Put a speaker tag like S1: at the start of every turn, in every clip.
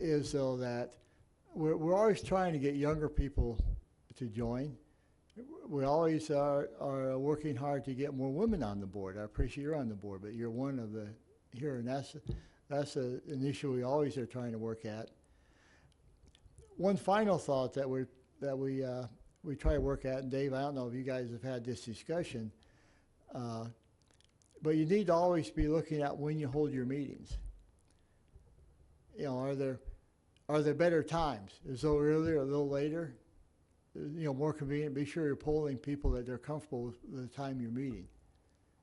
S1: is though that we're, we're always trying to get younger people to join. We always are, are working hard to get more women on the board. I appreciate you're on the board, but you're one of the here, and that's, that's a, an issue we always are trying to work at. One final thought that we're, that we, uh, we try to work at, and Dave, I don't know if you guys have had this discussion, uh, but you need to always be looking at when you hold your meetings. You know, are there, are there better times? Is it earlier, a little later? You know, more convenient, be sure you're polling people that they're comfortable with the time you're meeting.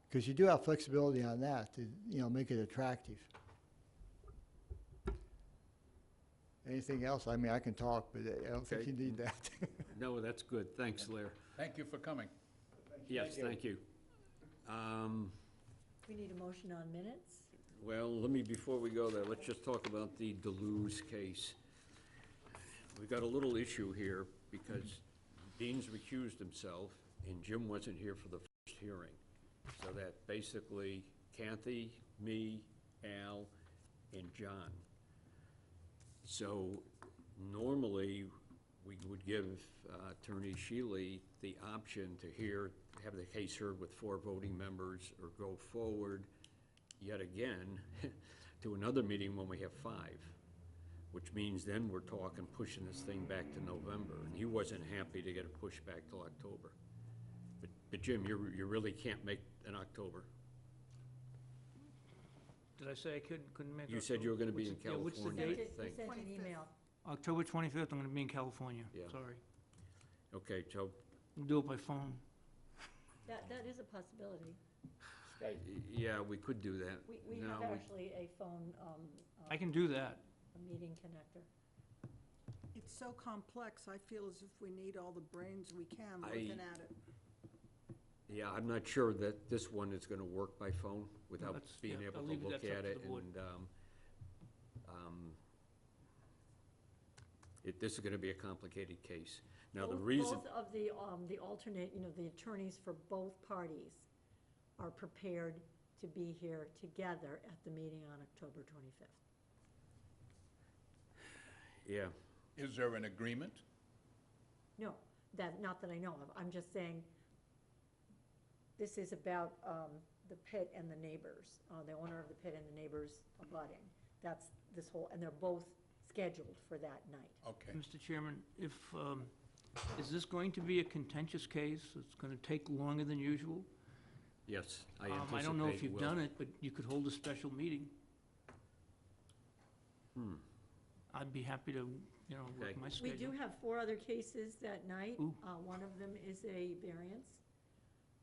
S1: Because you do have flexibility on that to, you know, make it attractive. Anything else? I mean, I can talk, but I don't think
S2: Okay.
S1: you need that.
S2: No, that's good. Thanks, Lair.
S3: Thank you for coming.
S2: Yes, thank you. Um,
S4: We need a motion on minutes?
S2: Well, let me, before we go there, let's just talk about the Deleuze case. We've got a little issue here because Dean's recused himself and Jim wasn't here for the first hearing. So that basically Kathy, me, Al, and John. So normally, we would give uh, Attorney Shealy the option to hear, have the case heard with four voting members or go forward yet again to another meeting when we have five, which means then we're talking, pushing this thing back to November. And he wasn't happy to get it pushed back till October. But- But Jim, you, you really can't make an October.
S5: Did I say I couldn't, couldn't make?
S2: You said
S5: October?
S2: you were gonna be in
S5: What's the- yeah, what's the
S2: California.
S5: date?
S2: date?
S4: We
S2: Thank
S4: sent an email.
S5: October twenty-fifth, I'm gonna be in California,
S2: Yeah.
S5: sorry.
S2: Okay, so
S5: Do it by phone.
S4: That, that is a possibility.
S2: Yeah, we could do that.
S4: We, we
S2: No,
S4: have actually a phone, um,
S5: I
S4: um,
S5: can do that.
S4: a meeting connector.
S6: It's so complex, I feel as if we need all the brains we can
S2: I-
S6: looking at it.
S2: Yeah, I'm not sure that this one is gonna work by phone without
S5: That's-
S2: being
S5: yeah,
S2: able
S5: I'll
S2: to
S5: leave it-
S2: look
S5: that's up
S2: at
S5: to
S2: it
S5: the board.
S2: and, um, um, it, this is gonna be a complicated case. Now, the
S4: Both-
S2: reason.
S4: Both of the, um, the alternate, you know, the attorneys for both parties are prepared to be here together at the meeting on October twenty-fifth.
S2: Yeah,
S3: Is there an agreement?
S4: No, that, not that I know of. I'm just saying, this is about um, the pit and the neighbors, uh, the owner of the pit and the neighbors abutting. That's this whole, and they're both scheduled for that night.
S3: Okay.
S5: Mr. Chairman, if, um, is this going to be a contentious case? It's gonna take longer than usual?
S2: yes, I
S5: Um,
S2: anticipate
S5: I don't know if you've
S2: will.
S5: done it, but you could hold a special meeting. I'd be happy to, you know, work
S2: Hmm. Okay.
S5: my
S4: We
S5: schedule.
S4: do have four other cases that night.
S5: Ooh.
S4: Uh, One of them is a variance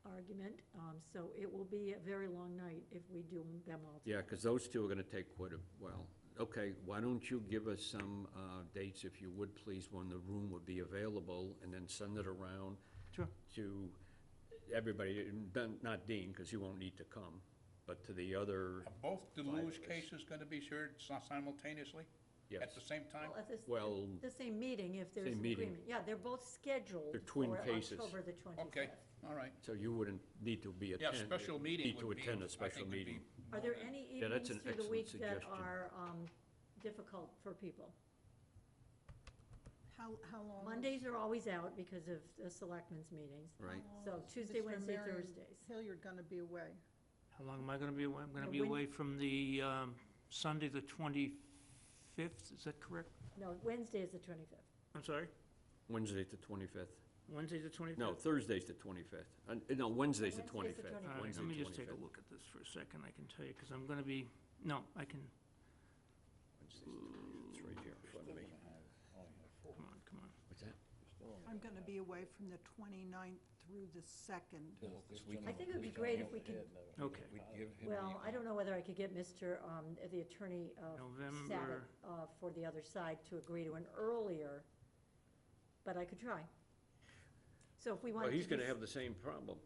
S4: argument, um, so it will be a very long night if we do them all.
S2: Yeah, because those two are gonna take quite a while. Okay, why don't you give us some, uh, dates, if you would, please, when the room would be available, and then send it around
S5: Sure.
S2: to everybody, and then- not Dean, because he won't need to come, but to the other,
S3: Are both
S2: Virus.
S3: Deluge cases going to be shared si- simultaneously? At the
S2: yes.
S3: same time?
S4: Well, at this-
S2: Well,
S4: The same meeting if there's
S2: Same
S4: an
S2: meeting.
S4: agreement. Yeah, they're both scheduled.
S2: They're twin
S4: for
S2: cases.
S4: October the twenty-fifth.
S3: Okay, all right.
S2: So you wouldn't need to be
S3: Yeah,
S2: attend.
S3: special meeting
S2: Need to
S3: would be.
S2: attend
S3: I
S2: a special
S3: think would be
S2: meeting.
S4: Are
S3: more
S4: there
S3: than-
S4: any
S2: Um, Yeah, that's
S4: evenings
S2: an
S4: through the
S2: excellent
S4: week that
S2: suggestion.
S4: are um, difficult for people?
S6: How, how long? is-
S4: Mondays are always out because of the selectmen's meetings,
S6: how
S2: Right,
S6: long
S4: so
S6: is
S4: Tuesday,
S6: Mr.
S4: Wednesday,
S6: Marion
S4: Thursdays.
S6: Hilliard going to be away?
S5: How long am I gonna be away? I'm gonna
S4: No,
S5: be
S4: when-
S5: away from the, um, Sunday, the twenty-fifth, is that correct?
S4: No, Wednesday is the twenty-fifth.
S5: I'm sorry?
S2: Wednesday the twenty-fifth.
S5: Wednesday, the twenty-fifth?
S2: No, Thursday's the twenty-fifth. Uh, No, Wednesday's the
S4: Wednesday's the
S2: twenty-fifth.
S4: 25th.
S5: All right,
S2: Wednesday
S5: let me just take a
S2: 25th.
S5: look at this for a second, I can tell you, because I'm going to be, no, I can,
S2: Wednesday's the 25th. It's right here in front of me.
S5: come on, come on.
S2: What's that?
S6: I'm going to be away from the 29th through the 2nd.
S4: I think it would be great if we could,
S5: Okay,
S4: well, I don't know whether I could get Mr., um, the attorney of Sabat,
S5: November,
S4: uh for the other side to agree to an earlier, but I could try. So if we
S2: Well,
S4: wanted to.
S2: he's gonna
S4: do-
S2: have the same problem,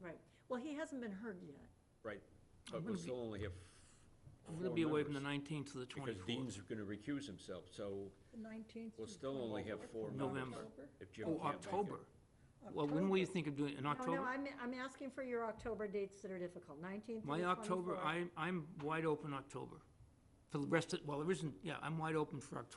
S4: Right, well, he hasn't been heard yet.
S2: right?
S5: I'm
S2: But
S5: gonna
S2: we
S5: be-
S2: still only have
S5: I'm going
S2: four
S5: to be away from the
S2: members,
S5: 19th to the
S2: Because
S5: 24th.
S2: Dean's gonna recuse himself, so
S6: The 19th.
S2: we'll
S6: through the
S2: still only have
S6: 24th.
S2: four
S5: November.
S2: members. If Jim
S5: Oh,
S2: can't make it.
S5: October. Well, when were you thinking of doing, it? in
S4: Oh, No, no,
S5: October?
S4: I'm, I'm asking for your October dates that are difficult, nineteenth through
S5: My
S4: the
S5: October,
S4: 24th.
S5: I'm, I'm wide open October. For the rest of, well, there isn't, yeah, I'm wide open for October.